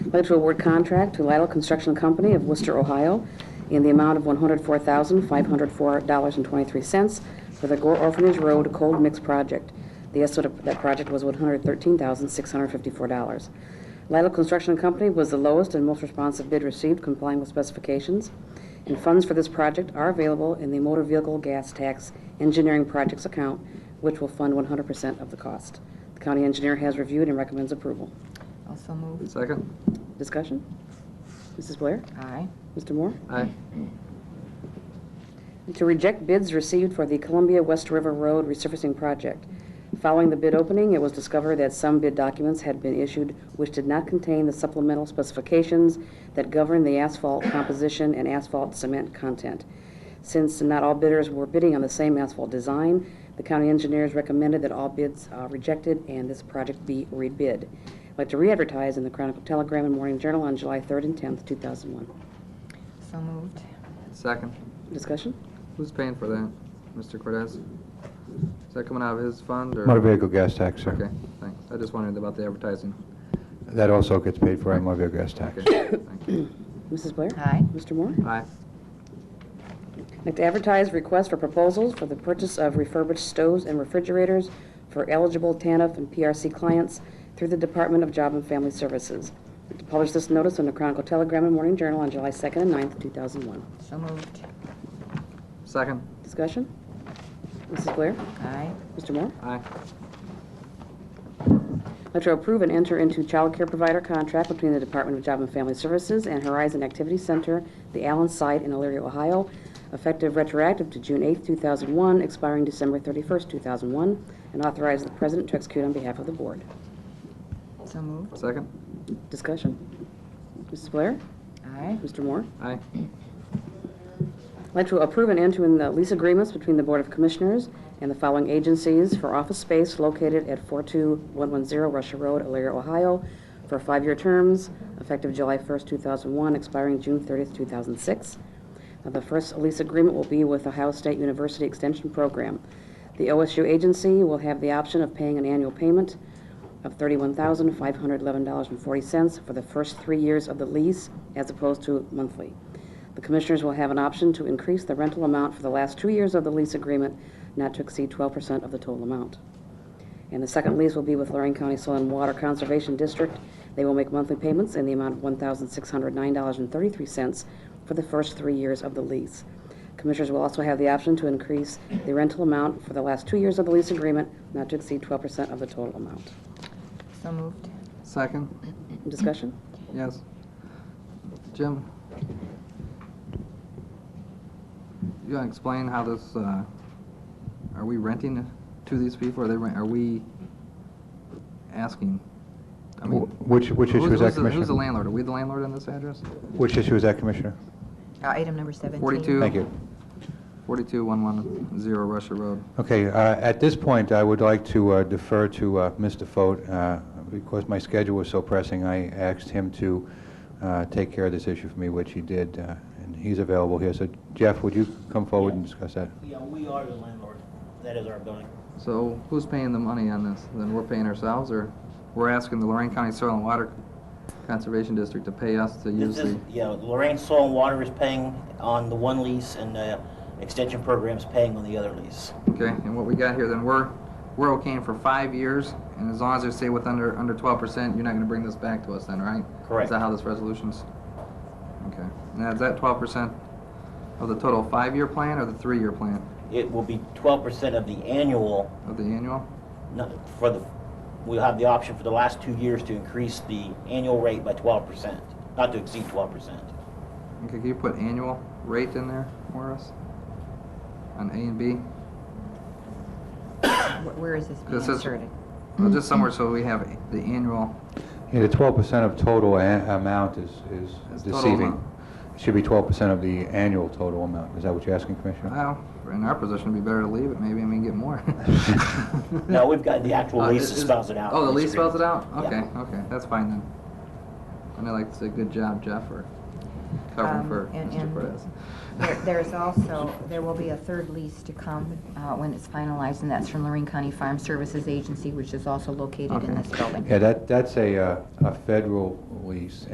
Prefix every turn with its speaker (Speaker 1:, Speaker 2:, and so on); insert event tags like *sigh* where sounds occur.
Speaker 1: I'd like to award contract to Lidle Construction Company of Worcester, Ohio, in the amount of $104,504.23 for the Gore Orphanage Road Cold Mix Project. The estimate of that project was $113,654. Lidle Construction Company was the lowest and most responsive bid received, complying with specifications, and funds for this project are available in the Motor Vehicle Gas Tax Engineering Projects account, which will fund 100% of the cost. The county engineer has reviewed and recommends approval.
Speaker 2: Also moved.
Speaker 3: Second?
Speaker 1: Discussion? Mrs. Blair?
Speaker 2: Aye.
Speaker 1: Mr. Moore?
Speaker 3: Aye.
Speaker 1: And To reject bids received for the Columbia West River Road resurfacing project. Following the bid opening, it was discovered that some bid documents had been issued which did not contain the supplemental specifications that govern the asphalt composition and asphalt cement content. Since not all bidders were bidding on the same asphalt design, the county engineers recommended that all bids uh, rejected and this project be rebid. I'd like to re-advertise in the Chronicle Telegram and Morning Journal on July 3rd and 10th, 2001.
Speaker 2: So moved.
Speaker 3: Second?
Speaker 1: Discussion?
Speaker 3: Who's paying for that, Mr. Cortez? Is that coming out of his fund or?
Speaker 4: Motor vehicle gas tax,
Speaker 3: Okay,
Speaker 4: sir.
Speaker 3: thanks. I just wondered about the advertising.
Speaker 4: That also gets paid for by motor vehicle gas tax.
Speaker 3: Okay, thank you.
Speaker 1: Mrs. Blair?
Speaker 2: Aye.
Speaker 1: Mr. Moore?
Speaker 3: Aye.
Speaker 1: I'd like to advertise requests for proposals for the purchase of refurbished stoves and refrigerators for eligible TANF and PRC clients through the Department of Job and Family Services. To publish this notice in the Chronicle Telegram and Morning Journal on July 2nd and 9th, 2001.
Speaker 2: So moved.
Speaker 3: Second?
Speaker 1: Discussion? Mrs. Blair?
Speaker 2: Aye.
Speaker 1: Mr. Moore?
Speaker 3: Aye.
Speaker 1: I'd like to approve and enter into child care provider contract between the Department of Job and Family Services and Horizon Activity Center, the Allen site in Elyria, Ohio, effective retroactive to June 8, 2001, expiring December 31, 2001, and authorize the president to execute on behalf of the board.
Speaker 2: So moved.
Speaker 3: Second?
Speaker 1: Discussion? Mrs. Blair?
Speaker 2: Aye.
Speaker 1: Mr. Moore?
Speaker 3: Aye.
Speaker 1: I'd like to approve and enter in the lease agreements between the Board of Commissioners and the following agencies for office space located at 42110 Russia Road, Elyria, Ohio, for five-year terms, effective July 1st, 2001, expiring June 30th, 2006. Now, The first lease agreement will be with Ohio State University Extension Program. The OSU agency will have the option of paying an annual payment of $31,511.40 for the first three years of the lease, as opposed to monthly. The Commissioners will have an option to increase the rental amount for the last two years of the lease agreement, not to exceed 12% of the total amount. And the second lease will be with Lorraine County Soil and Water Conservation District. They will make monthly payments in the amount of $1,609.33 for the first three years of the lease. Commissioners will also have the option to increase the rental amount for the last two years of the lease agreement, not to exceed 12% of the total amount.
Speaker 2: So moved.
Speaker 3: Second?
Speaker 1: Discussion?
Speaker 3: Yes. Jim? You want to explain how this, uh, are we renting to these people? Are they, rent- are we asking? I mean,
Speaker 4: Wh- Which, which
Speaker 3: who's-
Speaker 4: issue is that,
Speaker 3: who's the- Who's the
Speaker 4: Commissioner?
Speaker 3: landlord? Are we the landlord on this address?
Speaker 4: Which issue is that, Commissioner?
Speaker 2: Uh, Item number 17.
Speaker 3: 42.
Speaker 4: Thank you.
Speaker 3: 42110 Russia Road.
Speaker 4: Okay, uh, at this point, I would like to uh, defer to uh, Mr. Foat. uh, Because my schedule was so pressing, I asked him to uh, take care of this issue for me, which he did, uh, and he's available here. So Jeff, would you come forward and discuss that?
Speaker 5: Yeah, we are the landlord. That is our building.
Speaker 3: So who's paying the money on this? Then we're paying ourselves, or we're asking the Lorraine County Soil and Water Conservation District to pay us to use
Speaker 5: This is,
Speaker 3: the...
Speaker 5: yeah, Lorraine Soil and Water is paying on the one lease and the extension program's paying on the other lease.
Speaker 3: Okay, and what we got here, then we're, we're okaying for five years, and as long as they stay with under, under 12%, you're not gonna bring this back to us then, right? Is
Speaker 5: Correct.
Speaker 3: that how this resolution's? Okay. Now, is that 12% of the total five-year plan or the three-year plan
Speaker 5: It will be twelve percent of the annual,
Speaker 3: of the annual?
Speaker 5: no, for the, we'll have the option for the last two years to increase the annual rate by twelve percent, not to exceed twelve percent.
Speaker 3: Okay, can you put annual rate in there for us? On A and B?
Speaker 2: Wh- Where is this being
Speaker 3: This is-
Speaker 2: inserted?
Speaker 3: Well, just somewhere so we have the annual,
Speaker 4: Yeah, the 12% of total a- amount is
Speaker 3: That's
Speaker 4: is
Speaker 3: total
Speaker 4: deceiving.
Speaker 3: amount.
Speaker 4: It should be 12% of the annual total amount. Is that what you're asking, Commissioner?
Speaker 3: well, in our position, it'd be better to leave it, maybe, and we can get more.
Speaker 5: *laughs* No, we've got the actual
Speaker 3: Uh,
Speaker 5: lease
Speaker 3: is-
Speaker 5: that
Speaker 3: is-
Speaker 5: spells it out.
Speaker 3: Oh, the lease spells it out?
Speaker 5: Yeah.
Speaker 3: Okay, okay, that's fine then. And I'd like to say good job, Jeff, for covering
Speaker 2: Um,
Speaker 3: for
Speaker 2: and-
Speaker 3: Mr.
Speaker 2: and-
Speaker 3: Cortez.
Speaker 2: There- There's also, there will be a third lease to come uh, when it's finalized, and that's from Lorraine County Farm Services Agency, which is also located in
Speaker 3: Okay.
Speaker 2: this building.
Speaker 4: Yeah, that that's a uh, a federal lease,